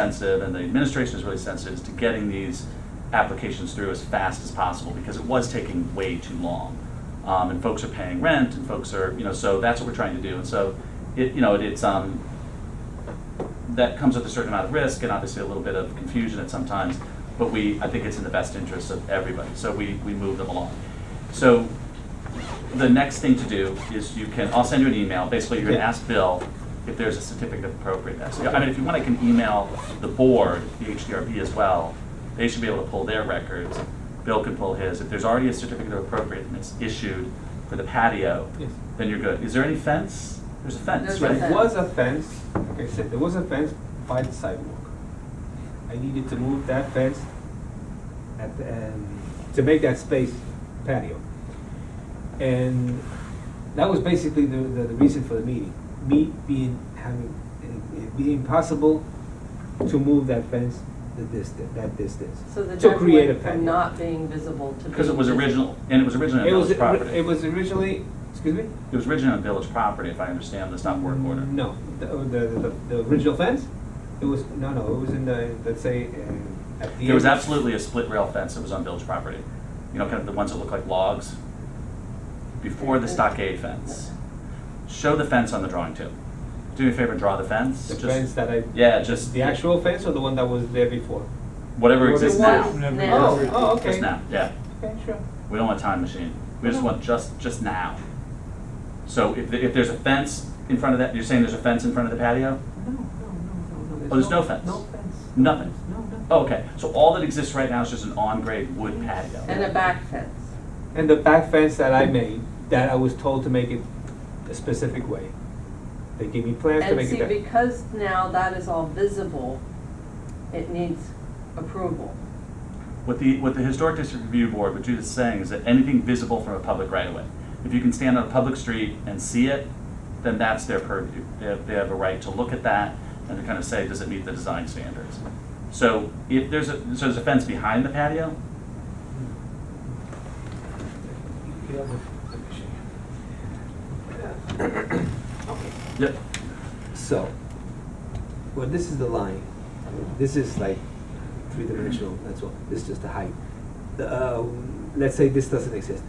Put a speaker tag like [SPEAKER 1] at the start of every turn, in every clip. [SPEAKER 1] sensitive and the administration is really sensitive is to getting these applications through as fast as possible because it was taking way too long. Um, and folks are paying rent and folks are, you know, so that's what we're trying to do. And so it, you know, it, it's, um, that comes with a certain amount of risk and obviously a little bit of confusion at sometimes, but we, I think it's in the best interest of everybody. So we, we move them along. So the next thing to do is you can, I'll send you an email, basically you're gonna
[SPEAKER 2] Yeah.
[SPEAKER 1] ask Bill if there's a certificate of appropriateness. I mean, if you want, I can email the board, the HDRB as well, they should be able to pull their records, Bill can pull his. If there's already a certificate of appropriateness issued for the patio,
[SPEAKER 2] Yes.
[SPEAKER 1] then you're good. Is there any fence? There's a fence,
[SPEAKER 3] There's a
[SPEAKER 1] right?
[SPEAKER 2] There
[SPEAKER 3] fence.
[SPEAKER 2] was a fence, like I said, there was a fence by the sidewalk. I needed to move that fence at, the- and to make that space patio. And that was basically the, the the reason for the meeting. Me being, having, it it being possible to move that fence the distance, that distance.
[SPEAKER 3] So the
[SPEAKER 2] To create a
[SPEAKER 3] deck went
[SPEAKER 2] patio.
[SPEAKER 3] from not being visible to.
[SPEAKER 1] Because it
[SPEAKER 3] being
[SPEAKER 1] was
[SPEAKER 3] visible.
[SPEAKER 1] original, and it was originally
[SPEAKER 2] It
[SPEAKER 1] on
[SPEAKER 2] was,
[SPEAKER 1] village property.
[SPEAKER 2] it was originally, excuse me?
[SPEAKER 1] It was originally on village property, if I understand, that's not work order.
[SPEAKER 2] No, the, oh, the, the, the original fence, it was, no, no, it was in the, let's say, uh, at the.
[SPEAKER 1] There was
[SPEAKER 2] end.
[SPEAKER 1] absolutely a split rail fence that was on village property. You know, kind of the ones that look like logs, before the stockade fence. Show the fence on the drawing too. Do me a favor, and draw the fence.
[SPEAKER 2] The
[SPEAKER 1] just-
[SPEAKER 2] fence that I.
[SPEAKER 1] Yeah, just
[SPEAKER 2] The actual fence or the one that was there before?
[SPEAKER 1] Whatever
[SPEAKER 2] Well,
[SPEAKER 1] exists
[SPEAKER 3] It
[SPEAKER 1] now.
[SPEAKER 3] was
[SPEAKER 2] Oh,
[SPEAKER 3] now.
[SPEAKER 2] oh, okay.
[SPEAKER 1] Just now, yeah.
[SPEAKER 2] Okay, sure.
[SPEAKER 1] We don't want a time machine. We just want just, just now. So if, if there's a fence in front of that, you're saying there's a fence in front of the patio?
[SPEAKER 2] No, no, no, no, no.
[SPEAKER 1] Oh, there's no fence?
[SPEAKER 2] No fence.
[SPEAKER 1] Nothing? Oh,
[SPEAKER 2] No, nothing.
[SPEAKER 1] Okay, so all that exists right now is just an on-grade wood patio.
[SPEAKER 3] And a back fence.
[SPEAKER 2] And the back fence that I made, that I was told to make it a specific way. They gave me plans to
[SPEAKER 3] And
[SPEAKER 2] make it
[SPEAKER 3] see,
[SPEAKER 2] that.
[SPEAKER 3] because now that is all visible, it needs approval.
[SPEAKER 1] What the, what the Historic District Review Board, what Judith's saying is that anything visible from a public right of way, if you can stand on a public street and see it, then that's their purview. They have, they have a right to look at that and to kind of say, does it meet the design standards? So if there's a, so there's a fence behind the patio,
[SPEAKER 2] Mm-hmm.
[SPEAKER 1] yep,
[SPEAKER 4] So, well, this is the line. This is like three-dimensional, that's all. This is just the height. The, uh, let's say this doesn't exist.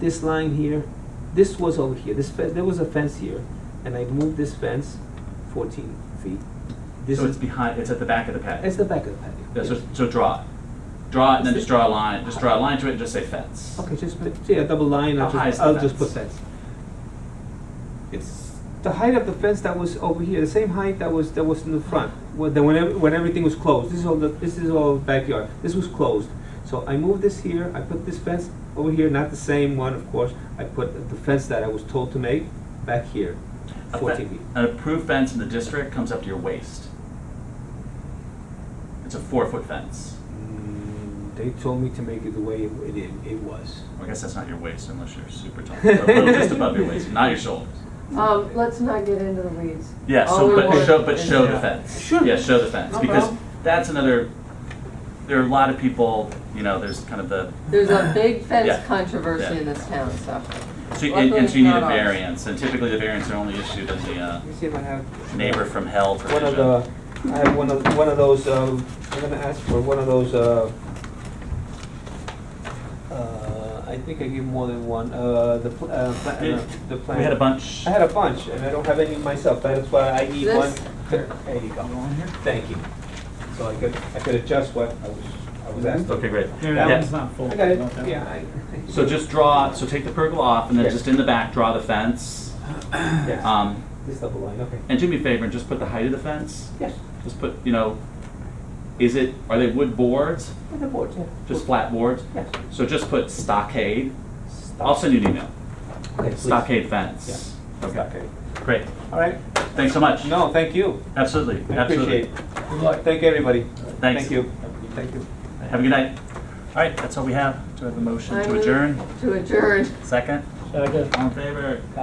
[SPEAKER 4] This line here, this was over here, this fence, there was a fence here, and I moved this fence fourteen feet. This
[SPEAKER 1] so it's
[SPEAKER 4] is,
[SPEAKER 1] behind, it's at the back of the patio.
[SPEAKER 4] it's the back of the patio.
[SPEAKER 1] Yeah, so,
[SPEAKER 4] yes.
[SPEAKER 1] so draw it. Draw it and then just draw a line, just draw a line to it and just say fence.
[SPEAKER 4] Okay, just put, yeah, double line,
[SPEAKER 1] How
[SPEAKER 4] I'll
[SPEAKER 1] high is
[SPEAKER 4] just,
[SPEAKER 1] the
[SPEAKER 4] I'll just put
[SPEAKER 1] fence?
[SPEAKER 4] fence. It's
[SPEAKER 2] The height of the fence that was over here, the same height that was, that was in the front, when, when, ev- when everything was closed, this is all the, this is all backyard, this was closed. So I moved this here, I put this fence over here, not the same one, of course, I put the fence that I was told to make back here,
[SPEAKER 1] A fe-
[SPEAKER 2] fourteen feet.
[SPEAKER 1] An approved fence in the district comes up to your waist. It's a four-foot fence.
[SPEAKER 2] Mm, They told me to make it the way it, it, it was.
[SPEAKER 1] I guess that's not your waist unless you're super tall. But a little just above your waist, not your shoulders.
[SPEAKER 5] Um, let's not get into the weeds.
[SPEAKER 1] Yeah,
[SPEAKER 5] All
[SPEAKER 1] so,
[SPEAKER 5] we
[SPEAKER 1] but
[SPEAKER 5] want
[SPEAKER 1] show, but
[SPEAKER 5] is-
[SPEAKER 1] show the
[SPEAKER 2] Yeah.
[SPEAKER 1] fence.
[SPEAKER 2] Oh, Sure.
[SPEAKER 1] Yeah, show the fence,
[SPEAKER 2] No
[SPEAKER 1] because
[SPEAKER 2] problem.
[SPEAKER 1] that's another, there are a lot of people, you know, there's kind of the,
[SPEAKER 3] There's a
[SPEAKER 1] Yeah.
[SPEAKER 3] big fence controversy
[SPEAKER 1] Yeah.
[SPEAKER 3] in this town, so.
[SPEAKER 1] so, you- and and so you need a
[SPEAKER 3] Luckily, it's not ours.
[SPEAKER 1] variance, and typically the variance are only issued in the uh,
[SPEAKER 2] Let me see if I have.
[SPEAKER 1] neighbor from hell
[SPEAKER 2] One of
[SPEAKER 1] provision.
[SPEAKER 2] the, I have one of, one of those, um, I'm gonna ask for one of those, uh, uh, I think I gave more than one, uh, the, pl- uh, pla- uh,
[SPEAKER 1] Yeah,
[SPEAKER 2] the
[SPEAKER 1] We
[SPEAKER 2] plan.
[SPEAKER 1] had a bunch.
[SPEAKER 2] I had a bunch, and I don't have any myself, that's why I need one.
[SPEAKER 3] This-
[SPEAKER 2] There you go, thank you. So I could, I could adjust what I was, I was asked. to-
[SPEAKER 1] Okay, great.
[SPEAKER 6] Yeah,
[SPEAKER 2] Yeah.
[SPEAKER 6] that one's not full.
[SPEAKER 2] I got
[SPEAKER 6] Not that
[SPEAKER 2] it,
[SPEAKER 6] one.
[SPEAKER 2] yeah, I.
[SPEAKER 1] Mm-hmm. So just draw, so take the pergola off, and then
[SPEAKER 2] Yeah.
[SPEAKER 1] just in the back, draw the fence.
[SPEAKER 2] Yes.
[SPEAKER 1] Um,
[SPEAKER 2] This double line, okay.
[SPEAKER 1] And do me a favor and just put the height of the fence.
[SPEAKER 2] Yes,
[SPEAKER 1] Just put, you know, is it, are they wood boards?
[SPEAKER 2] with the board, yeah.
[SPEAKER 1] Just flat boards?
[SPEAKER 2] Yes.
[SPEAKER 1] So just put stockade.
[SPEAKER 2] Stop.
[SPEAKER 1] I'll send you an email.
[SPEAKER 2] Okay, please.
[SPEAKER 1] Stockade fence.
[SPEAKER 2] Okay.
[SPEAKER 1] Great.
[SPEAKER 2] All right,
[SPEAKER 1] Thanks so much.
[SPEAKER 2] no, thank you.
[SPEAKER 1] Absolutely,
[SPEAKER 2] I appreciate
[SPEAKER 1] absolutely.
[SPEAKER 2] it. Good luck. Thank you, everybody.
[SPEAKER 1] Thanks.
[SPEAKER 2] Thank you. Thank you.
[SPEAKER 1] Have a good night. All right, that's all we have. Do I have a motion
[SPEAKER 3] I
[SPEAKER 1] to
[SPEAKER 3] move
[SPEAKER 1] adjourn?
[SPEAKER 3] To adjourn.
[SPEAKER 1] Second?
[SPEAKER 6] Second.
[SPEAKER 1] All in favor?
[SPEAKER 2] Aye.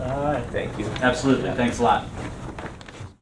[SPEAKER 1] Aye.
[SPEAKER 6] Aye.
[SPEAKER 2] Thank you.
[SPEAKER 1] Absolutely, thanks a lot.